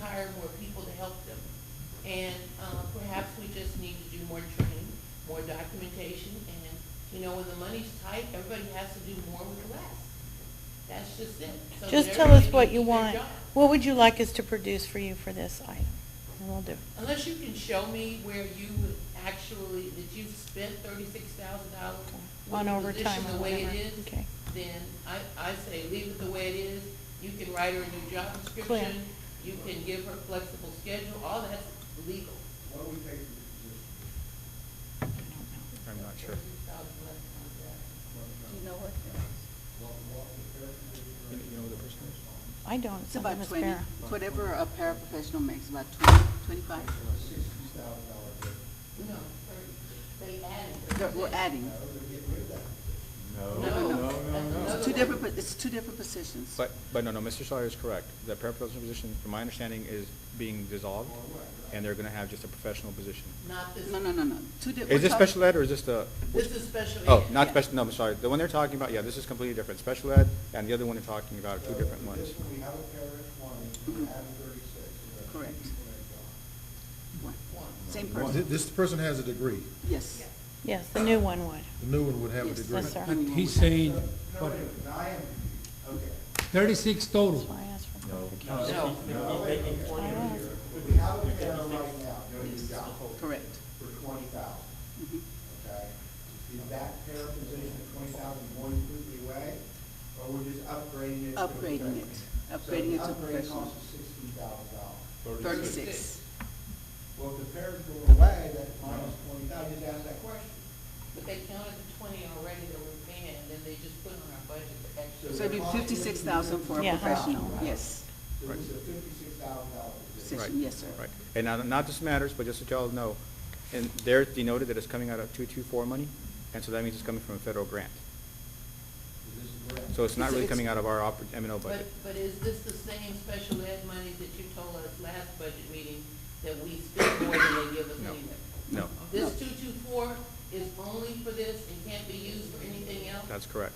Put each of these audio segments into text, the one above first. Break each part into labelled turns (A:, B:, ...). A: hire more people to help them. And, uh, perhaps we just need to do more training, more documentation, and, you know, when the money's tight, everybody has to do more with less. That's just it. So that
B: Just tell
A: everybody
B: us what
A: can
B: you
A: do their
B: want.
A: job.
B: What would you like us to produce for you for this item? And we'll do. it.
A: Unless you can show me where you actually, that you've spent thirty-six thousand dollars
B: Okay.
A: with
B: On
A: the
B: overtime
A: position
B: or
A: the way it
B: whatever.
A: is,
B: Okay.
A: then I, I say leave it the way it is. You can write her a new job description, you can give her flexible schedule, all that's legal.
C: What do we pay for this position?
B: I don't know.
D: I'm not sure.
C: What-
E: Do you know what?
C: what- what the fair
D: You
C: position
D: know who the person is?
B: I don't.
E: It's
B: It's not
E: about
B: Miss
E: twenty,
B: Farah.
E: whatever a paraprofessional makes, about twenty, twenty-five.
C: is? Sixty thousand dollars.
A: No, they
E: That
A: added.
E: We're adding.
C: Now, we're getting rid of that.
D: No,
A: No,
E: no,
A: no.
E: It's two different, po- it's two different positions.
D: But, but no, no, Mr. Sawyer is correct. The paraprofessional position, from my understanding, is being dissolved, and they're gonna have just a professional position.
A: Not this.
E: No, no, no, no, two different.
D: Is this special ed, or is this the?
A: This is special ed.
D: Oh, not
E: Yeah.
D: special, no, I'm sorry. The one they're talking about, yeah, this is completely different. Special ed and the other one they're talking about are two
C: So,
D: different
C: with
D: ones.
C: This one, we have a pair at twenty, we
E: Mhm.
C: have a thirty-six. so that's two
E: Correct.
C: people that go.
E: One.
A: One.
E: Same
F: Well, thi-
E: person,
F: This person has a degree.
E: yes.
A: Yeah.
B: Yes, the new one would.
F: The new one would have a
E: Yes,
F: degree.
B: Yes, sir.
E: I mean,
G: He's
E: we have-
G: saying,
C: No,
G: what,
C: wait a minute, now I am, okay.
G: thirty-six
B: That's
G: total.
B: why I asked for
D: No.
B: clarification.
A: No.
C: No, wait a minute.
B: I asked.
C: We have a pair right now, doing the job
E: Correct.
C: for twenty thousand,
E: Mhm.
C: okay? Is that pair position at twenty thousand going completely away, or we're just upgrading it? to a
E: Upgrading it,
C: professional? So
E: upgrading it
C: the
E: to
C: Upgrade
E: professional.
C: costs us sixteen thousand dollars.
E: Thirty-six.
C: Well, if the pairs go away, that's minus twenty thousand, just ask that question.
A: But they counted the twenty already that were paying, and then they just put on our budget the extra.
E: So it'd be fifty-six thousand for a
B: Yeah.
E: professional, yes,
C: So it's a fifty-six thousand dollar position.
D: Right.
E: position, yes, sir.
D: Right. And now, not this matters, but just so y'all know, and they're denoted that it's coming out of two-two-four money, and so that means it's coming from a federal grant.
C: Is this correct?
D: So it's not
E: It's-
D: really
E: it's-
D: coming out of our oper- M and O
A: But,
D: budget.
A: but is this the same special ed money that you told us last budget meeting that we spend more than they give us
D: No.
A: anyway?
D: No,
A: This two-two-four is only for this and can't be used for anything else?
D: that's correct.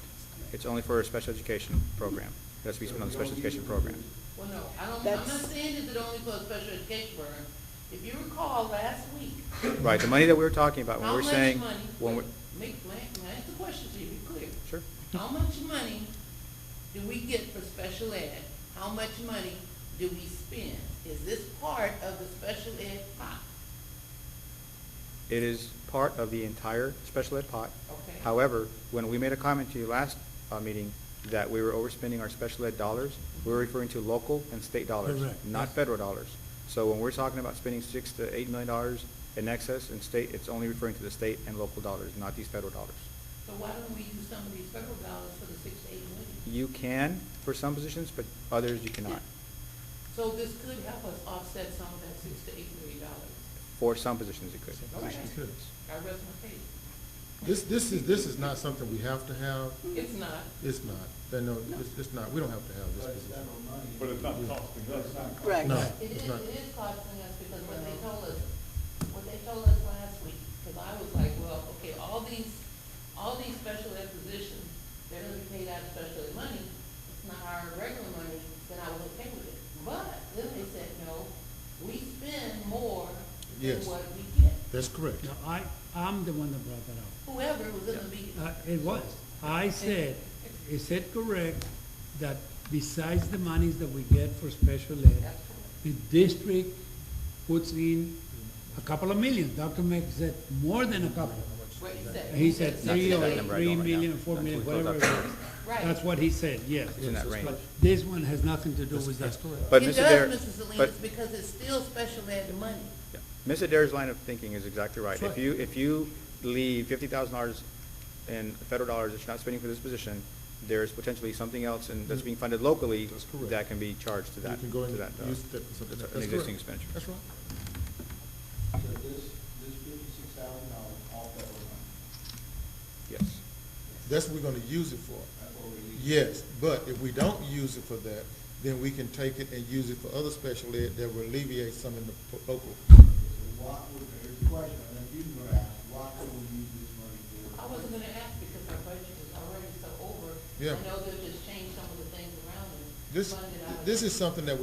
D: It's only for a special education program. It has to be spent on the special education program.
A: Well, no, I don't, I'm not
E: That's-
A: saying it's only for a special education program. If you recall, last week,
D: Right, the money that we were talking about, when
A: how
D: we're
A: much
D: saying,
A: money?
D: when we're,
A: Make, may I ask the question so you be clear?
D: sure,
A: How much money do we get for special ed? How much money do we spend? Is this part of the special ed pot?
D: it is part of the entire special ed pot.
A: Okay.
D: However, when we made a comment to you last uh, meeting that we were overspending our special ed dollars, we were referring to local and state dollars,
G: Correct,
D: not
G: yes.
D: federal dollars. So when we're talking about spending six to eight million dollars in excess in state, it's only referring to the state and local dollars, not these federal dollars.
A: So why don't we use some of these federal dollars for the six to eight million?
D: You can for some positions, but others you cannot,
A: So this could help us offset some of that six to eight million dollars.
D: for some positions it could.
A: Positions
F: could.
A: I rest my case.
F: This, this is, this is not something we have to have.
A: It's not.
F: It's not. Then, no, it's, it's not. We don't have to have this
C: But it's
F: position.
C: federal money.
H: But it's not costing us.
C: It's not-
E: Right.
F: No,
A: It is,
F: it's not.
A: it is costing us because what they told us, what they told us last week, because I was like, well, okay, all these, all these special ed positions, they're gonna be paid out of special ed money, it's not our regular money, then I was okay with it. But then they said, no, we spend more than
F: Yes.
A: what we get.
F: That's correct.
G: No, I, I'm the one that brought that
A: Whoever was in the meeting.
G: up. Uh, It was. I said, is it correct that besides the monies that we get for special ed,
A: That's correct.
G: the district puts in a couple of million? Dr. Mack said more than a couple.
A: What he said.
G: He said
D: That's
G: three
D: that
G: or
D: number I
G: three
D: don't right now.
G: million, four
D: That's
G: million,
D: what we
G: whatever
D: thought
G: it
D: that
G: was.
A: Right.
G: That's what he said, yes.
D: It's in that range.
G: This one has nothing to do
F: That's-
G: with that.
F: that's correct.
D: But
A: It
D: Mr. Dare-
A: does, Mrs.
D: but-
A: Salinas, because it's still special ed money.
D: Yeah. Ms. Adair's line of thinking is exactly right.
G: That's
D: If
G: right.
D: you, if you leave fifty thousand dollars in federal dollars that you're not spending for this position, there's potentially something else and that's being funded locally.
F: Mm-hmm. That's correct.
D: That can be charged to
F: You
D: that,
F: can go
D: to
F: and
D: that, uh,
F: use that for something.
D: that's
F: That's
D: an
F: correct.
D: existing expenditure.
F: That's right.
C: So this, this fifty-six thousand dollars, all federal money.
D: Yes.
F: That's what we're gonna use it for.
C: That's what we need.
F: Yes, but if we don't use it for that, then we can take it and use it for other special ed that will alleviate some in the po- local.
C: So what would, here's the question, I know you were asked, what could we use this money for?
A: I wasn't gonna ask because our budget is already so over.
F: Yeah.
A: I know they'll just change some of the things around it.
F: This,
A: Funded out of-
F: this is something that